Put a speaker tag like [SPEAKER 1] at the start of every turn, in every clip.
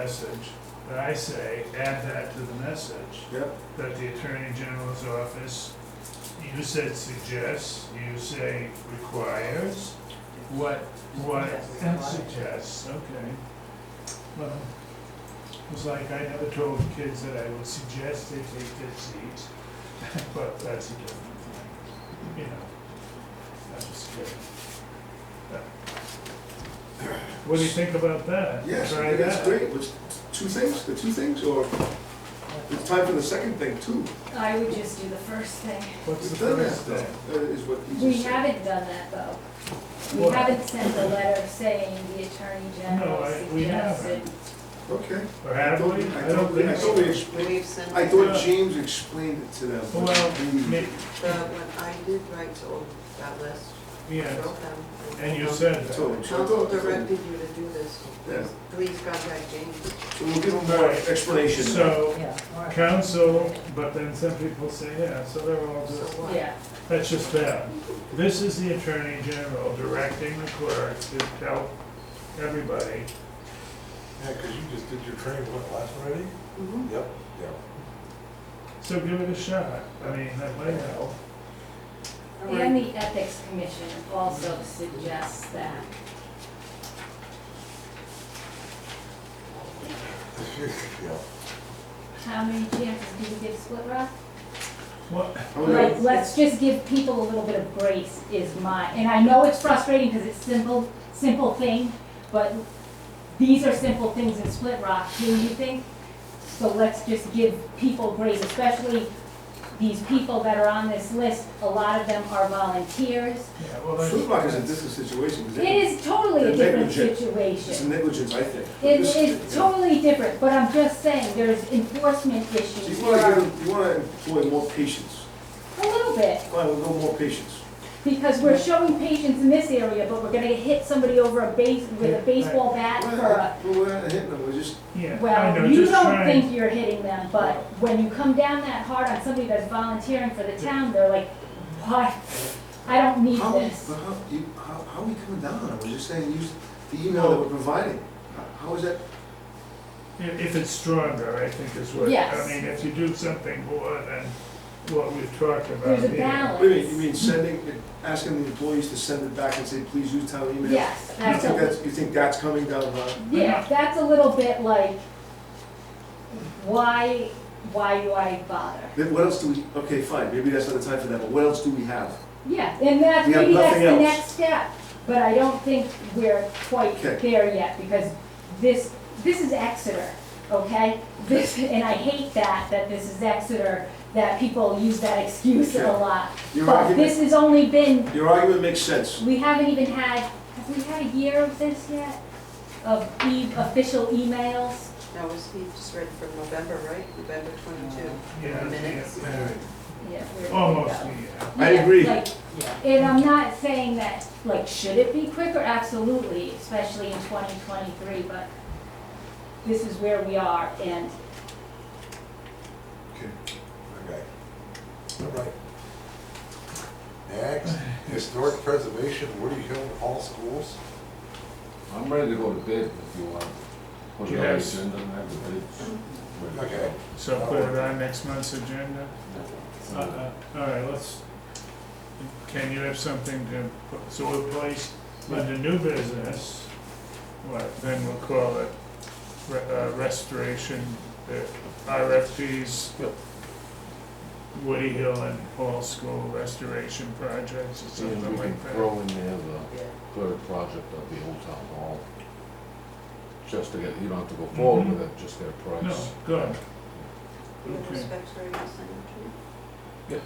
[SPEAKER 1] message, that I say, add that to the message,
[SPEAKER 2] Yep.
[SPEAKER 1] that the Attorney General's office, you said suggests, you say requires, what, what, and suggests, okay. Well, it was like, I never told kids that I would suggest they take their seats, but that's a different thing, you know, I'm just kidding. What do you think about that?
[SPEAKER 2] Yes, I
[SPEAKER 1] Try
[SPEAKER 2] think that's
[SPEAKER 1] that?
[SPEAKER 2] great, which, two things, the two things, or it's time for the second thing too.
[SPEAKER 3] I would just do the first thing.
[SPEAKER 1] What's the
[SPEAKER 2] We've done that
[SPEAKER 1] first
[SPEAKER 2] though,
[SPEAKER 1] thing?
[SPEAKER 2] that is what he
[SPEAKER 3] We
[SPEAKER 2] just said.
[SPEAKER 3] haven't done that though. We
[SPEAKER 1] What?
[SPEAKER 3] haven't sent a letter saying the attorney
[SPEAKER 1] No,
[SPEAKER 3] general
[SPEAKER 1] I- we
[SPEAKER 3] suggested.
[SPEAKER 2] Okay.
[SPEAKER 1] Or have
[SPEAKER 2] thought-
[SPEAKER 1] we? I
[SPEAKER 2] thought
[SPEAKER 1] don't
[SPEAKER 2] we- I
[SPEAKER 1] think
[SPEAKER 2] thought
[SPEAKER 1] so.
[SPEAKER 2] we explained,
[SPEAKER 4] We've sent
[SPEAKER 2] I
[SPEAKER 4] the,
[SPEAKER 2] thought James explained it to them. but
[SPEAKER 1] Well,
[SPEAKER 2] we-
[SPEAKER 1] may-
[SPEAKER 4] uh, when I did write to all that list, I
[SPEAKER 1] Yes,
[SPEAKER 4] wrote them.
[SPEAKER 1] and you said
[SPEAKER 2] I
[SPEAKER 1] that.
[SPEAKER 2] told him, so I
[SPEAKER 4] Council
[SPEAKER 2] thought- I told
[SPEAKER 4] directed
[SPEAKER 2] him.
[SPEAKER 4] you to do this.
[SPEAKER 2] Yeah.
[SPEAKER 4] Please contact James.
[SPEAKER 2] So we'll give them more
[SPEAKER 1] Right.
[SPEAKER 2] explanation.
[SPEAKER 1] So,
[SPEAKER 5] Yeah, all right.
[SPEAKER 1] council, but then some people say, yeah, so they're all
[SPEAKER 4] So
[SPEAKER 1] just,
[SPEAKER 4] what?
[SPEAKER 3] Yeah,
[SPEAKER 1] that's just bad. This is the Attorney General directing the clerk to tell everybody,
[SPEAKER 6] Yeah, because you just did your training, what, last Friday?
[SPEAKER 4] Mhm.
[SPEAKER 6] Yep. Yeah.
[SPEAKER 1] so give it a shot. I mean, that might help.
[SPEAKER 3] and the ethics commission also suggests that.
[SPEAKER 6] Yeah.
[SPEAKER 3] How many chances do you give Split Rock?
[SPEAKER 1] What,
[SPEAKER 2] How many-
[SPEAKER 3] Like, let's just give people a little bit of grace is my, and I know it's frustrating because it's simple, simple thing, but these are simple things in Split Rock, do you think? So let's just give people grace, especially these people that are on this list, a lot of them are volunteers.
[SPEAKER 1] yeah, well, that's.
[SPEAKER 2] Food Rock is a different situation. 'cause
[SPEAKER 3] It
[SPEAKER 2] they-
[SPEAKER 3] is totally a different
[SPEAKER 2] Negligent. It's
[SPEAKER 3] situation.
[SPEAKER 2] negligence, I think.
[SPEAKER 3] It
[SPEAKER 2] This-
[SPEAKER 3] is totally different, but I'm just saying, there's enforcement
[SPEAKER 2] So
[SPEAKER 3] issues.
[SPEAKER 2] you
[SPEAKER 3] There
[SPEAKER 2] wanna
[SPEAKER 3] are
[SPEAKER 2] give, you wanna employ more patience.
[SPEAKER 3] A little bit,
[SPEAKER 2] Fine, we'll go more patience.
[SPEAKER 3] Because we're showing patience in this area, but we're gonna hit somebody over a base, with a baseball bat
[SPEAKER 2] We're
[SPEAKER 3] for a,
[SPEAKER 2] not- We're not hitting them, we're just,
[SPEAKER 1] Yeah, I know,
[SPEAKER 3] well, you
[SPEAKER 1] just
[SPEAKER 3] don't
[SPEAKER 1] trying.
[SPEAKER 3] think you're hitting them, but when you come down that hard on somebody that's volunteering for the town, they're like, what? I don't need
[SPEAKER 2] how,
[SPEAKER 3] this.
[SPEAKER 2] but how, you, how, how are we coming down? I was just saying, use the email that we're providing. How- How is that?
[SPEAKER 1] If if it's stronger, I think is what, I
[SPEAKER 3] Yes.
[SPEAKER 1] mean, if you do something more than what we've talked about
[SPEAKER 3] There's a
[SPEAKER 1] here.
[SPEAKER 2] What do you mean, you
[SPEAKER 3] balance.
[SPEAKER 2] mean sending, asking the employees to send it back and say, please use town email?
[SPEAKER 3] Yes, that's
[SPEAKER 2] You think
[SPEAKER 3] a,
[SPEAKER 2] that's, you think that's coming down the line?
[SPEAKER 3] yeah, that's a little bit like, why, why do I bother?
[SPEAKER 2] Then what else do we, okay, fine, maybe that's not the time for that, but what else do we have?
[SPEAKER 3] Yeah, and that's,
[SPEAKER 2] We have
[SPEAKER 3] maybe that's
[SPEAKER 2] nothing
[SPEAKER 3] the
[SPEAKER 2] else.
[SPEAKER 3] next step, but I don't think we're quite
[SPEAKER 2] Okay.
[SPEAKER 3] there yet, because this, this is Exeter, okay? This, and I hate that, that this is Exeter, that people use that excuse a
[SPEAKER 2] Okay.
[SPEAKER 3] lot.
[SPEAKER 2] Your
[SPEAKER 3] But this
[SPEAKER 2] argument,
[SPEAKER 3] has only been,
[SPEAKER 2] your argument makes sense.
[SPEAKER 3] we haven't even had, have we had a year of this yet? Of e, official emails?
[SPEAKER 4] That was, he just read from November, right? November twenty-two.
[SPEAKER 1] Yeah,
[SPEAKER 4] Minutes.
[SPEAKER 1] yeah, yeah.
[SPEAKER 3] Yeah, we're-
[SPEAKER 1] Almost,
[SPEAKER 3] yeah.
[SPEAKER 1] yeah.
[SPEAKER 2] I
[SPEAKER 3] Yeah,
[SPEAKER 2] agree.
[SPEAKER 3] like,
[SPEAKER 5] Yeah.
[SPEAKER 3] And I'm not saying that, like, should it be quicker? Absolutely, especially in twenty twenty-three, but this is where we are, and
[SPEAKER 6] Okay. Okay. All right. Next, historic preservation, Woody Hill Hall Schools.
[SPEAKER 7] I'm ready to go to bed if you want. Put it on the
[SPEAKER 1] Yes.
[SPEAKER 7] agenda and have the bid.
[SPEAKER 6] Okay.
[SPEAKER 1] So put it on next month's agenda? Uh-uh, all right, let's, can you have something to, put- so we'll place under new business, what, then we'll call it re- uh, restoration, uh, RFPs, Woody Hill and Hall School restoration projects or
[SPEAKER 7] And
[SPEAKER 1] something
[SPEAKER 7] we can
[SPEAKER 1] like that.
[SPEAKER 7] throw in there the third project of the old town hall. Just to get, you don't have to go forward with it, just get a price.
[SPEAKER 1] No, good.
[SPEAKER 4] You have
[SPEAKER 1] Okay.
[SPEAKER 4] specs ready to send it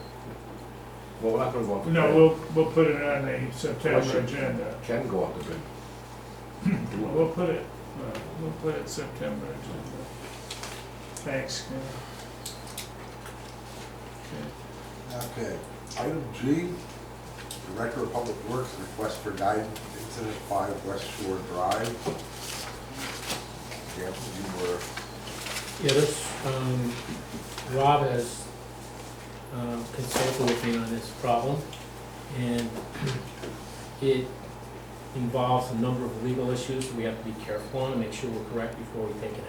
[SPEAKER 7] Well, we're not gonna go out to bid.
[SPEAKER 1] No, we'll, we'll put it on the September
[SPEAKER 7] Question.
[SPEAKER 1] agenda.
[SPEAKER 7] Can go out to bid.
[SPEAKER 1] Well, We'll put it, well, we'll put it September agenda. Thanks, Ken. Okay.
[SPEAKER 6] Okay. Item G, Director of Public Works, request for guidance, incident five West Shore Drive. Yeah, you were
[SPEAKER 8] Yeah, this, um, Rob has, um, consulted with me on this problem, and it involves a number of legal issues we have to be careful on and make sure we're correct before we take an